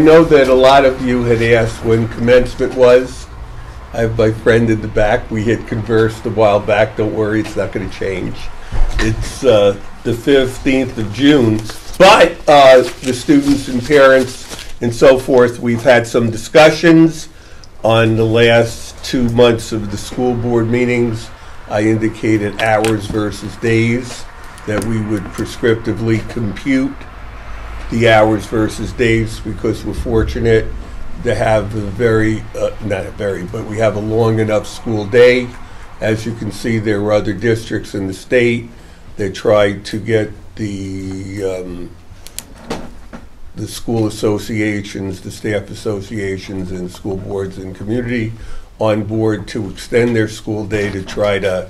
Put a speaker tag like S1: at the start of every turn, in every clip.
S1: know that a lot of you had asked when commencement was. I have my friend in the back. We had conversed a while back. Don't worry, it's not going to change. It's uh, the 15th of June. But uh, the students and parents and so forth, we've had some discussions on the last two months of the school board meetings. I indicated hours versus days, that we would prescriptively compute the hours versus days because we're fortunate to have a very, uh, not a very, but we have a long enough school day. As you can see, there are other districts in the state that try to get the, um, the school associations, the staff associations, and school boards and community on board to extend their school day to try to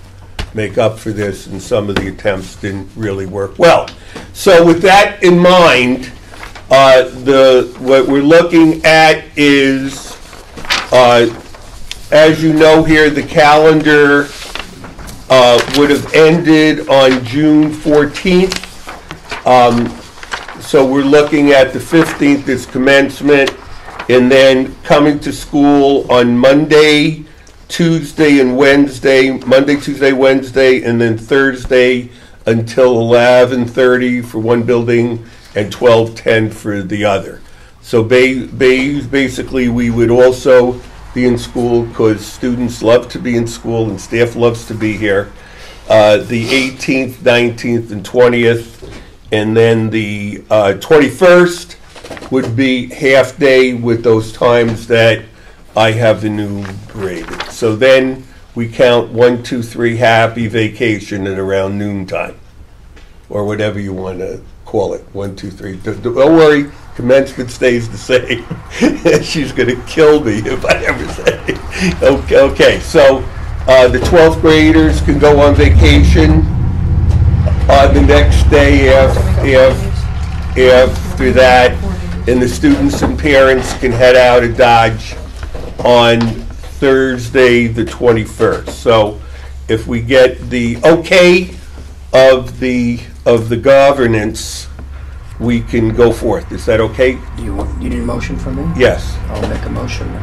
S1: make up for this, and some of the attempts didn't really work well. So with that in mind, uh, the, what we're looking at is, uh, as you know here, the calendar uh, would have ended on June 14th. So we're looking at the 15th is commencement, and then coming to school on Monday, Tuesday, and Wednesday, Monday, Tuesday, Wednesday, and then Thursday until 11:30 for one building and 12:10 for the other. So ba- ba- basically, we would also be in school because students love to be in school and staff loves to be here. Uh, The 18th, 19th, and 20th, and then the uh, 21st would be half-day with those times that I have enumerated. So then we count one, two, three, happy vacation at around noon time, or whatever you want to call it, one, two, three. D- d- Don't worry, commencement stays the same. She's going to kill me if I ever say. Okay, okay. so uh, the 12th graders can go on vacation on the next day if, if, after that, and the students and parents can head out of Dodge on Thursday, the 21st. So if we get the okay of the, of the governance, we can go forth. Is that okay?
S2: Do you want, you need a motion from me?
S1: Yes.
S2: I'll make a motion. then.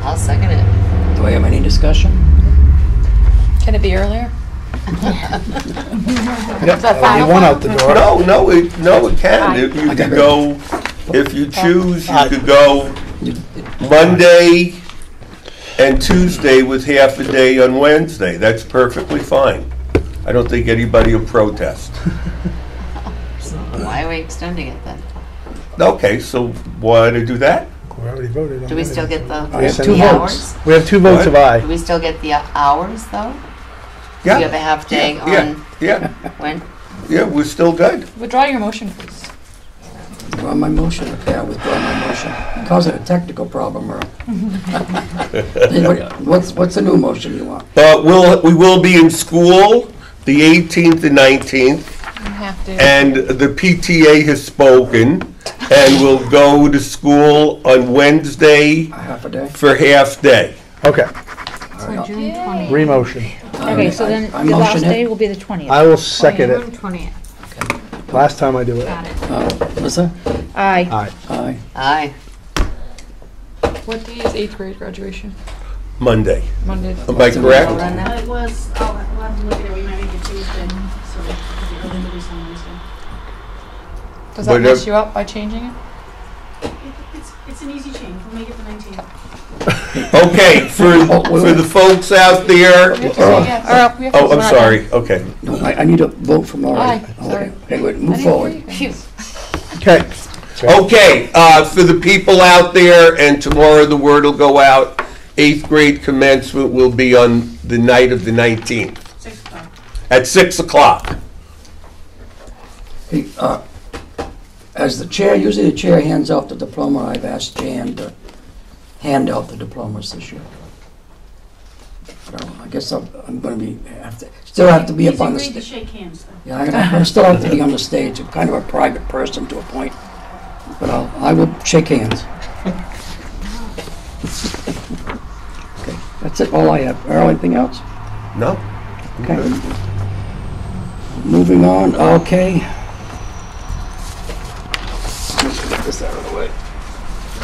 S3: I'll second it.
S2: Do I have any discussion?
S4: Can it be earlier?
S5: Uh, You want out the door.
S1: No, no, it, no, it can. If you could go, if you choose, you could go Monday and Tuesday with half a day on Wednesday. That's perfectly fine. I don't think anybody will protest.
S3: Why are we extending it then?
S1: Okay, so why to do that?
S5: We already voted on
S3: Do we
S5: that.
S3: still get the,
S5: We have two
S3: the
S5: votes.
S3: hours?
S5: We have two votes of
S3: Do
S5: aye.
S3: we still get the hours though? Do we have a
S1: Yeah,
S3: half day on
S1: yeah, yeah,
S3: when?
S1: yeah, we're still good.
S4: Withdraw your motion, please.
S2: Withdraw my motion, okay, I withdraw my motion. Causing a technical problem, Earl. Hey, what- What's, what's the new motion you want?
S1: But we'll, we will be in school the 18th and 19th.
S4: You have to.
S1: And the PTA has spoken and will go to school on Wednesday
S2: A half a day?
S1: for half day.
S5: Okay,
S2: Alright,
S6: June twentieth.
S5: remotion.
S2: I-
S6: Okay, so
S2: I-
S6: then
S2: I
S6: the last
S2: motion it.
S6: day will be the twentieth.
S5: I will second it.
S6: Twentieth,
S5: Last time I do it.
S6: got it.
S2: Uh, Melissa?
S6: Aye.
S5: Aye.
S2: Aye.
S3: Aye.
S4: What day is eighth grade graduation?
S1: Monday.
S4: Monday.
S1: Am I
S3: Well, then
S1: correct?
S3: that-
S7: It was, oh, we'll have to look at it, we might make it Tuesday, so it'll be early release on Wednesday.
S4: Does that
S1: Whatever.
S4: mess you up by changing it?
S7: It's, it's an easy change, we'll make it the nineteenth.
S1: Okay, for, for the folks out there,
S4: We have to say yes.
S6: Earl, we have to-
S1: oh,
S6: we're
S1: I'm
S6: not
S1: sorry, okay.
S2: No, I, I need a vote from Laurie.
S4: Aye, sorry.
S2: Okay, Hey, wait,
S4: done. I didn't
S2: move
S4: hear
S2: forward.
S4: you guys.
S3: Phew.
S5: Okay,
S1: Okay, uh, for the people out there, and tomorrow the word will go out, eighth grade commencement will be on the night of the 19th
S7: Six o'clock.
S1: at 6 o'clock.
S2: Hey, uh, As the chair, usually the chair hands out the diploma, I've asked Jan to hand out the diplomas this year. But I- I guess I'm, I'm gonna be, have to, still have to be up on the
S7: He's agreed to
S2: stage.
S7: shake hands, though.
S2: Yeah, I I still have to be on the stage, I'm kind of a private person to a point, but I'll, I will shake hands. Okay, That's it, all I have. Earl, anything else?
S1: No?
S2: Okay. Moving on, okay.